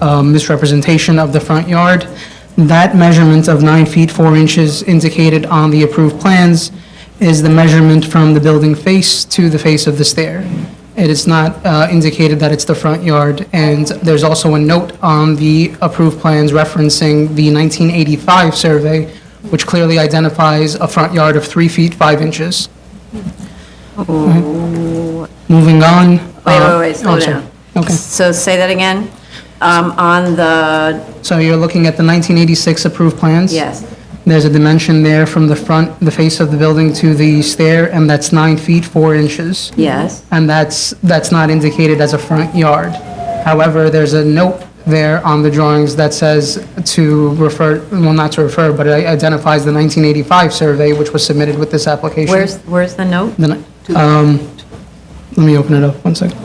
uh, misrepresentation of the front yard. That measurement of nine feet, four inches indicated on the approved plans is the measurement from the building face to the face of the stair. It is not uh, indicated that it's the front yard, and there's also a note on the approved plans referencing the 1985 survey, which clearly identifies a front yard of three feet, five inches. Moving on. uh, Wait, wait, wait, oh, slow I'm sorry. down. Okay. So say that again. Um, On the, So you're looking at the 1986 approved plans? yes, There's a dimension there from the front, the face of the building to the stair, and that's nine feet, four inches. yes, And that's, that's not indicated as a front yard. However, there's a note there on the drawings that says to refer, well, not to refer, but it identifies the 1985 survey, which was submitted with this application. where's, where's the note? Then, um, let me open it up, one second.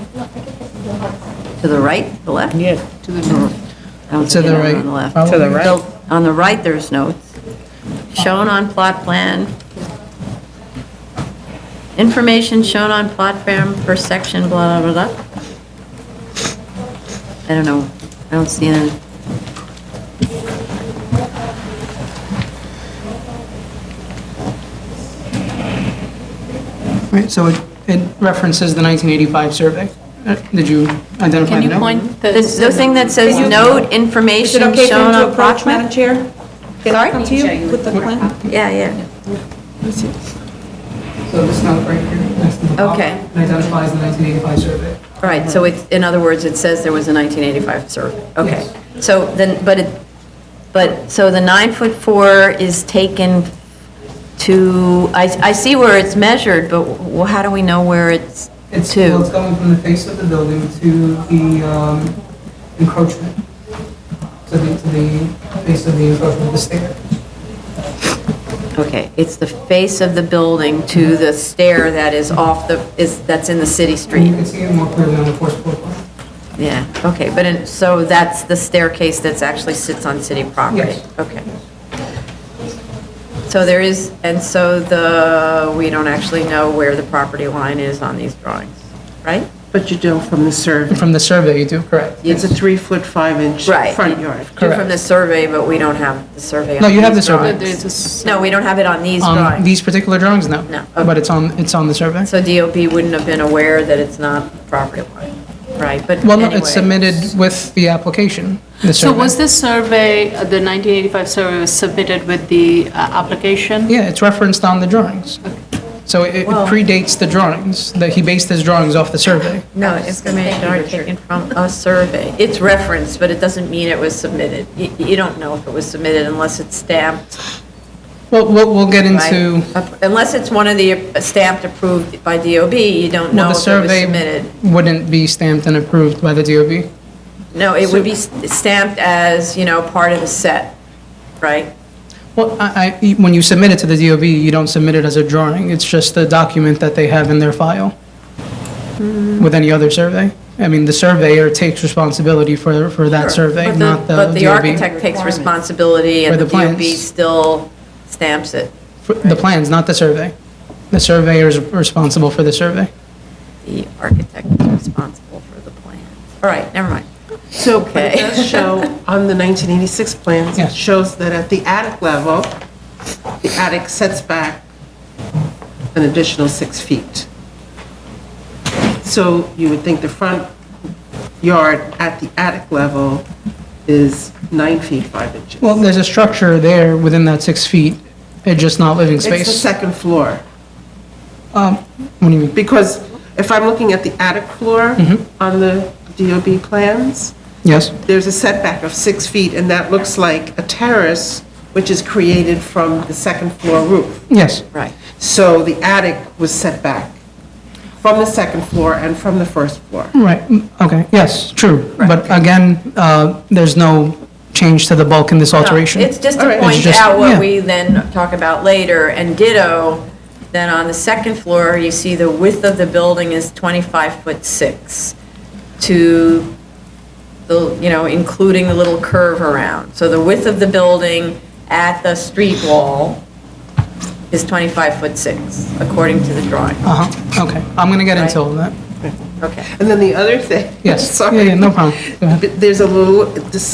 To the right, the left? Yeah, To the north. I don't To see the it right. on the left. To the right. So On the right, there's notes. Shown on plot plan. Information shown on plot plan per section, blah, blah, blah, blah. I don't know. I don't see any. Right, so it it references the 1985 survey. Uh, Did you identify Can the you note? point the... This- The thing that says note Is it information okay for him shown to on plot approach, plan? Madam Chair? Can I Sorry? come to you with the plan? Yeah, yeah. So this note right here, that's the top, Okay. it identifies the 1985 survey. All right, so it's, in other words, it says there was a 1985 survey. Okay. So then, but it, but, so the nine foot four is taken to, I, I see where it's measured, but wh- how do we know where it's It's, well, it's to? going from the face of the building to the um, encroachment, to the, to the face of the encroachment of the stair. Okay, it's the face of the building to the stair that is off the, is, that's in the And city you street. can see it more clearly on the first floor plan. Yeah, okay, but, in- so that's the staircase that's actually sits on city property? Yes. Okay. So there is, and so the, we don't actually know where the property line is on these drawings, right? but you do from the survey. From the survey, you do, correct? It's a three-foot, five-inch Right. front yard. Two From the survey, but we don't have the survey on No, you have these the survey. drawings. No, we don't have it on these On drawings. these particular drawings, no. No. But it's on, it's on the survey. So DOB wouldn't have been aware that it's not the property line, right? But Well, no, it's anyway. submitted with the application, the So survey. was this survey, uh, the 1985 survey was submitted with the uh, application? Yeah, it's referenced on the drawings. So it it Well- predates the drawings, that he based his drawings off the survey. No, information are taken from a survey. It's referenced, but it doesn't mean it was submitted. You, you don't know if it was submitted unless it's stamped, Well, we'll, we'll get right? into, Unless it's one of the stamped approved by DOB, you well, don't the know if it was survey submitted. wouldn't be stamped and approved by the DOB. No, it would be s- stamped as, you know, part of the set, right? Well, I, I, when you submit it to the DOB, you don't submit it as a drawing, it's just a document that they have in their file Mm. with any other survey. I mean, the surveyor takes responsibility for, for that Sure. survey, But not the DOB. But the architect takes responsibility For and the the DOB plans. still stamps it. For The plans, not the survey. The surveyor is responsible for the survey. The architect is responsible for the plan. All right, never mind. So, but it Okay. does show on the 1986 plans, Yes. it shows that at the attic level, the attic sets back an additional six feet. So you would think the front yard at the attic level is nine feet, five inches. Well, there's a structure there within that six feet, it's just not living It's the space. second floor. Um, What do you mean? Mm-hmm. Because if I'm looking at the attic floor on the DOB plans, Yes, there's a setback of six feet, and that looks like a terrace, which is created from the second floor roof. yes. Right. So the attic was set back from the second floor and from the first floor. Right, mm, okay, yes, true. But again, uh, there's no change to the bulk in this No, alteration. It's just All to right. It's point just- out yeah. what we then talk about later, and ditto, then on the second floor, you see the width of the building is 25 foot 6 to the, you know, including the little curve around. So the width of the building at the street wall is 25 foot 6, according to the drawing. Uh-huh, okay, I'm going to get into all that. Okay. And then the other thing. Yes. Yeah, Sorry. yeah, no problem. Go ahead. There's a little, this